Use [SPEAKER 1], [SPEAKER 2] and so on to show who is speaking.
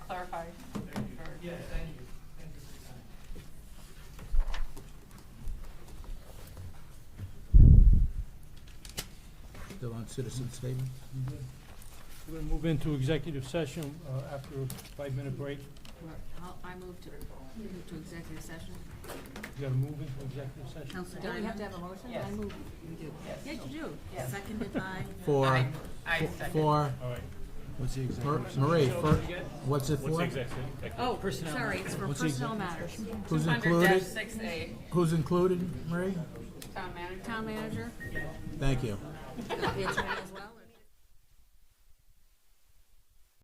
[SPEAKER 1] clarify.
[SPEAKER 2] Thank you.
[SPEAKER 1] for-
[SPEAKER 2] Yeah, thank you. Thank you for your time.
[SPEAKER 3] Still on citizen statement?
[SPEAKER 4] We're gonna move into executive session uh, after a five-minute break.
[SPEAKER 5] Well, I'll- I move to, move to executive session.
[SPEAKER 4] You gotta move into executive session.
[SPEAKER 5] Council Diamond? Do we have to have a motion?
[SPEAKER 1] Yes.
[SPEAKER 5] I move. You do.
[SPEAKER 1] Yes.
[SPEAKER 5] Yes, you do.
[SPEAKER 1] Yes.
[SPEAKER 5] Seconded by?
[SPEAKER 3] For,
[SPEAKER 1] I second.
[SPEAKER 3] for,
[SPEAKER 4] All right.
[SPEAKER 6] What's the exact?
[SPEAKER 3] Mar- Marie, for, what's
[SPEAKER 7] What's
[SPEAKER 3] it
[SPEAKER 7] the
[SPEAKER 3] for?
[SPEAKER 7] exact,
[SPEAKER 5] Oh, sorry, it's for personnel matters.
[SPEAKER 3] Who's
[SPEAKER 1] Under dash
[SPEAKER 3] included?
[SPEAKER 1] six A,
[SPEAKER 3] Who's included, Marie?
[SPEAKER 1] town manager.
[SPEAKER 5] Town manager,
[SPEAKER 3] Thank you.
[SPEAKER 5] the attorney as well?